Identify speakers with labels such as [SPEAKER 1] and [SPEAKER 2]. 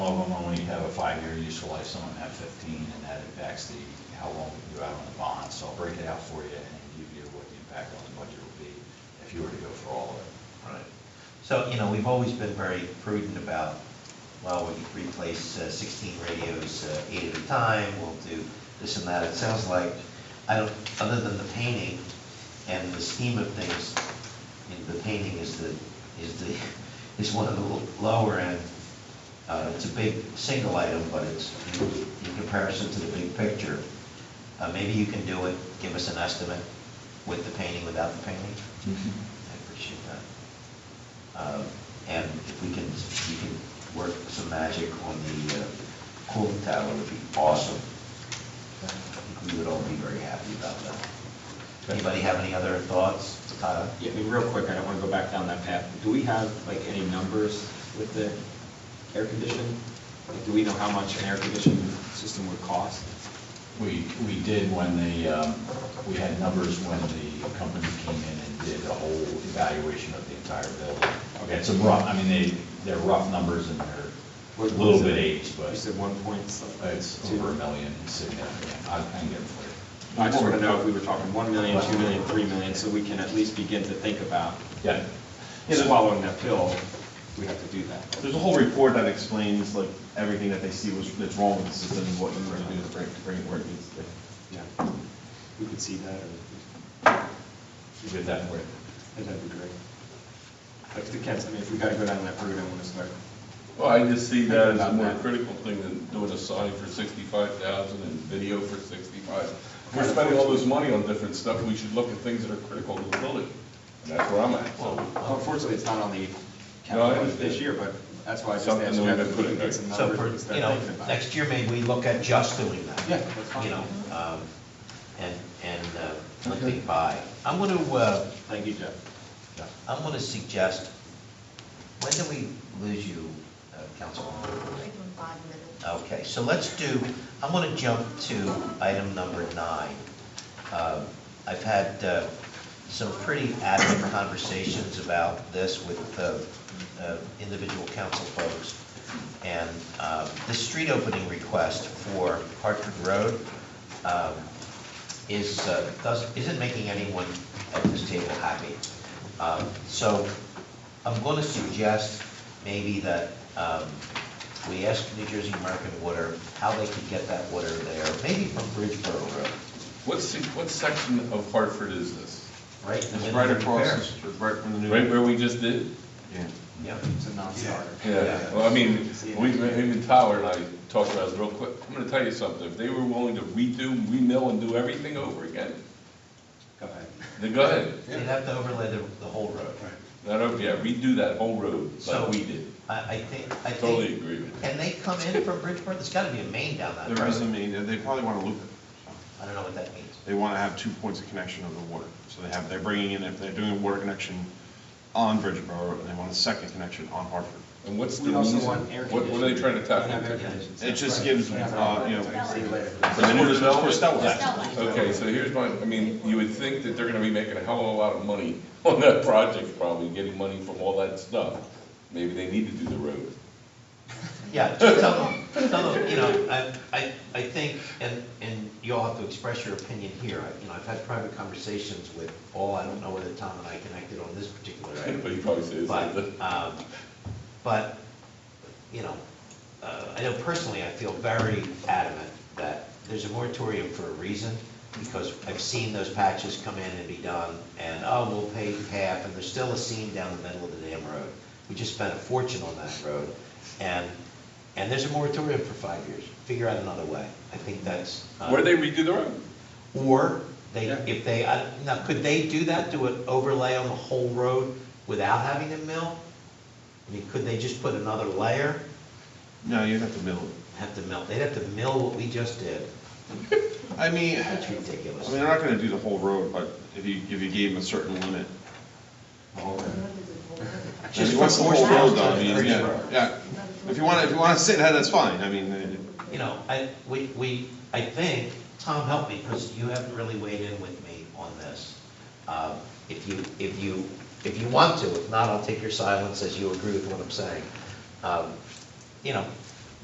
[SPEAKER 1] five-year useful life, some of them have fifteen, and that impacts the, how long you're out on the bond. So I'll break it out for you and give you what the impact on the budget would be if you were to go for all of it.
[SPEAKER 2] Right. So, you know, we've always been very prudent about, well, we replace uh, 16 radios uh, eight at a time, we'll do this and that. It sounds like, I don't, other than the painting and the scheme of things, you know, the painting is the, is the, is one of the lower end. Uh, It's a big single item, but it's in comparison to the big picture. Uh, Maybe you can do it, give us an estimate with the painting, without the painting? I appreciate that. Um, And if we can, you can work some magic on the uh, cooling tower, it would be awesome. I think we would all be very happy about that. Anybody have any other thoughts, Tyler?
[SPEAKER 3] Yeah, I mean, real quick, I don't want to go back down that path. Do we have, like, any numbers with the air condition? Like, do we know how much an air conditioning system would cost?
[SPEAKER 1] We, we did when the, um, we had numbers when the company came in and did a whole evaluation of the entire building. Okay, it's a rough, I mean, they, they're rough numbers and they're a
[SPEAKER 3] What- what
[SPEAKER 1] little
[SPEAKER 3] is
[SPEAKER 1] bit
[SPEAKER 3] it?
[SPEAKER 1] aged, but
[SPEAKER 3] You said one point something?
[SPEAKER 1] it's
[SPEAKER 3] two?
[SPEAKER 1] over a million, it's significant. I I can get it for you.
[SPEAKER 3] I just want to know if we were talking one million, two million, three million, so we can at least begin to think about
[SPEAKER 1] Yeah.
[SPEAKER 3] swallowing that pill. We have to do that.
[SPEAKER 4] There's a whole report that explains like everything that they see was, that's wrong with the system, and what you were to do to bring, to bring it where it needs to. be.
[SPEAKER 3] Yeah, We could see that, or-
[SPEAKER 1] You did that for you.
[SPEAKER 3] that'd be great. Like, the kids, I mean, if we got to go down that road, I want to start.
[SPEAKER 5] Well, I just see that as a
[SPEAKER 3] About
[SPEAKER 5] more
[SPEAKER 3] that.
[SPEAKER 5] critical thing than doing a sign for sixty-five thousand and video for sixty-five. We're spending all this money on different stuff, we should look at things that are critical to the building, and that's where I'm at, so.
[SPEAKER 3] Unfortunately, it's not on the
[SPEAKER 5] No, I
[SPEAKER 3] capital budget this
[SPEAKER 5] understand.
[SPEAKER 3] year, but that's why I just
[SPEAKER 5] Something
[SPEAKER 3] asked
[SPEAKER 5] that
[SPEAKER 3] you
[SPEAKER 5] we
[SPEAKER 3] if
[SPEAKER 5] could
[SPEAKER 3] we
[SPEAKER 5] put
[SPEAKER 3] can
[SPEAKER 5] in
[SPEAKER 3] get
[SPEAKER 5] there.
[SPEAKER 3] some
[SPEAKER 2] So,
[SPEAKER 3] numbers
[SPEAKER 2] for
[SPEAKER 3] and start
[SPEAKER 2] you know,
[SPEAKER 3] thinking about it.
[SPEAKER 2] next year, maybe we look at just doing that.
[SPEAKER 3] Yeah, that's fine.
[SPEAKER 2] You know, um, and, and uh, let me buy. I'm going to,
[SPEAKER 3] Thank you, Jeff.
[SPEAKER 2] I'm going to suggest, when do we lose you, uh, Councilwoman?
[SPEAKER 6] Give them five minutes.
[SPEAKER 2] Okay, so let's do, I'm going to jump to item number nine. Um, I've had uh, some pretty adamant conversations about this with uh, uh, individual council folks. And um, the street opening request for Hartford Road um, is, uh, doesn't, isn't making anyone at this table happy. Um, So I'm going to suggest maybe that um, we ask New Jersey American Water how they could get that water there, maybe from Bridgeboro Road,
[SPEAKER 5] What, se- what section of Hartford is this?
[SPEAKER 2] right? in the
[SPEAKER 4] It's
[SPEAKER 2] middle
[SPEAKER 4] right
[SPEAKER 2] of
[SPEAKER 4] across,
[SPEAKER 2] Bear.
[SPEAKER 4] the str- right from the new.
[SPEAKER 5] Right where we just did?
[SPEAKER 4] Yeah.
[SPEAKER 2] Yeah,
[SPEAKER 3] It's a non-starter.
[SPEAKER 2] Yeah.
[SPEAKER 5] Well, I mean, we, even Tyler and I talked about it real quick, I'm gonna tell you something, if they were willing to redo, remill and do everything over again,
[SPEAKER 3] Go ahead.
[SPEAKER 5] then go ahead.
[SPEAKER 2] they'd have to overlay the, the whole road.
[SPEAKER 5] Not over, yeah, redo that whole road
[SPEAKER 2] So-
[SPEAKER 5] like we did.
[SPEAKER 2] I, I think, I think.
[SPEAKER 5] Totally agree with you.
[SPEAKER 2] And they come in from Bridgeboro, there's gotta be a main down that
[SPEAKER 4] There is a
[SPEAKER 2] road.
[SPEAKER 4] main, they probably want to loop it.
[SPEAKER 2] I don't know what that means.
[SPEAKER 4] They want to have two points of connection of the water. So they have, they're bringing in, if they're doing a water connection on Bridgeboro, and they want a second connection on Hartford.
[SPEAKER 5] And what's the
[SPEAKER 3] We also
[SPEAKER 5] reason?
[SPEAKER 3] want air
[SPEAKER 5] What, what are they trying to tap into?
[SPEAKER 4] It just gives, uh, you know.
[SPEAKER 3] See you later.
[SPEAKER 4] For the new developers, that was-
[SPEAKER 5] Okay, so here's my, I mean, you would think that they're gonna be making a hell of a lot of money on that project probably, getting money from all that stuff. Maybe they need to do the road.
[SPEAKER 2] Yeah, just tell them, tell them, you know, I, I, I think, and, and you all have to express your opinion here. I- You know, I've had private conversations with all, I don't know whether Tom and I connected on this particular item.
[SPEAKER 5] But he probably says
[SPEAKER 2] But,
[SPEAKER 5] that.
[SPEAKER 2] um, but, you know, uh, I know personally, I feel very adamant that there's a moratorium for a reason, because I've seen those patches come in and be done, and, oh, we'll pay half, and there's still a seam down the middle of the damn road. We just spent a fortune on that road, and, and there's a moratorium for five years. Figure out another way. I think that's. uh,
[SPEAKER 5] Where they redo the road?
[SPEAKER 2] or they,
[SPEAKER 3] Yeah.
[SPEAKER 2] if they, I- now, could they do that, do an overlay on the whole road without having a mill? I mean, could they just put another layer,
[SPEAKER 4] No, you'd have to mill it.
[SPEAKER 2] have to mill, they'd have to mill what we just did?
[SPEAKER 4] I mean, I
[SPEAKER 2] That's
[SPEAKER 4] mean,
[SPEAKER 2] ridiculous.
[SPEAKER 4] they're not going to do the whole road, but if you, if you gave them a certain limit. I
[SPEAKER 2] Just
[SPEAKER 4] mean, What's the
[SPEAKER 2] from
[SPEAKER 4] whole
[SPEAKER 2] Horse House
[SPEAKER 4] road
[SPEAKER 2] to
[SPEAKER 4] though? I mean, yeah,
[SPEAKER 2] Bridgeboro.
[SPEAKER 4] yeah. If you want, if you want to sit that, that's fine. I mean, uh,
[SPEAKER 2] You know, I, we, we, I think, Tom, help me, because you haven't really weighed in with me on this. Um, If you, if you, if you want to, if not, I'll take your silence as you agree with what I'm saying. Um, You know,